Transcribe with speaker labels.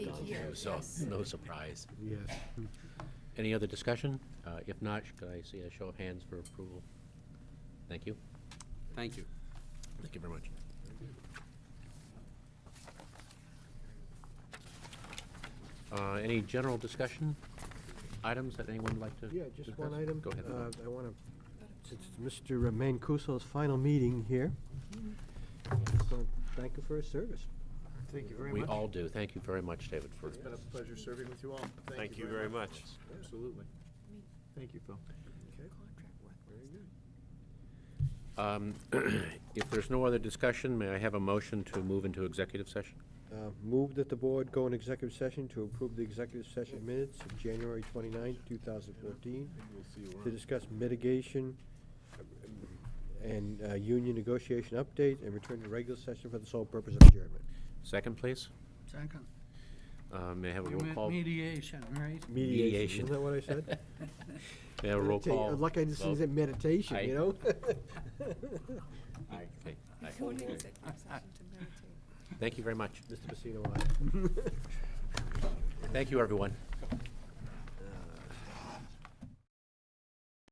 Speaker 1: too, so no surprise.
Speaker 2: Yes.
Speaker 1: Any other discussion? Uh, If not, could I see a show of hands for approval? Thank you.
Speaker 3: Thank you.
Speaker 1: Thank you very much. Uh, Any general discussion items that anyone would like to?
Speaker 2: Yeah, just one
Speaker 1: discuss?
Speaker 2: item.
Speaker 1: Go ahead.
Speaker 2: Uh, I want to, since it's Mr. Mancuso's final meeting here, I just want to thank you for his service.
Speaker 4: Thank you very
Speaker 1: We
Speaker 4: much.
Speaker 1: all do. Thank you very much, David, for.
Speaker 4: It's been a pleasure serving with you all.
Speaker 5: Thank you very much.
Speaker 4: Absolutely. Thank you, Phil.
Speaker 2: Okay, very good.
Speaker 1: Um, If there's no other discussion, may I have a motion to move into executive session?
Speaker 2: Uh, Move that the board go in executive session to approve the executive session minutes of January 29, 2014, to discuss mitigation and uh, union negotiation update, and return to regular session for the sole purpose of adjournment.
Speaker 1: Second, please.
Speaker 6: Second.
Speaker 1: Uh, May I have a
Speaker 6: You
Speaker 1: roll
Speaker 6: meant
Speaker 1: call? May
Speaker 6: mediation, right?
Speaker 1: Mediation.
Speaker 2: Isn't that what I said?
Speaker 1: I have a roll
Speaker 2: Meditate-
Speaker 1: call?
Speaker 2: Like I just
Speaker 1: vote?
Speaker 2: said, meditation,
Speaker 1: Aye.
Speaker 2: you know?
Speaker 1: Okay. Aye.
Speaker 7: Go into executive session to meditate.
Speaker 1: Thank you very much.
Speaker 2: Mr. Pacino, aye.
Speaker 1: Thank you, everyone.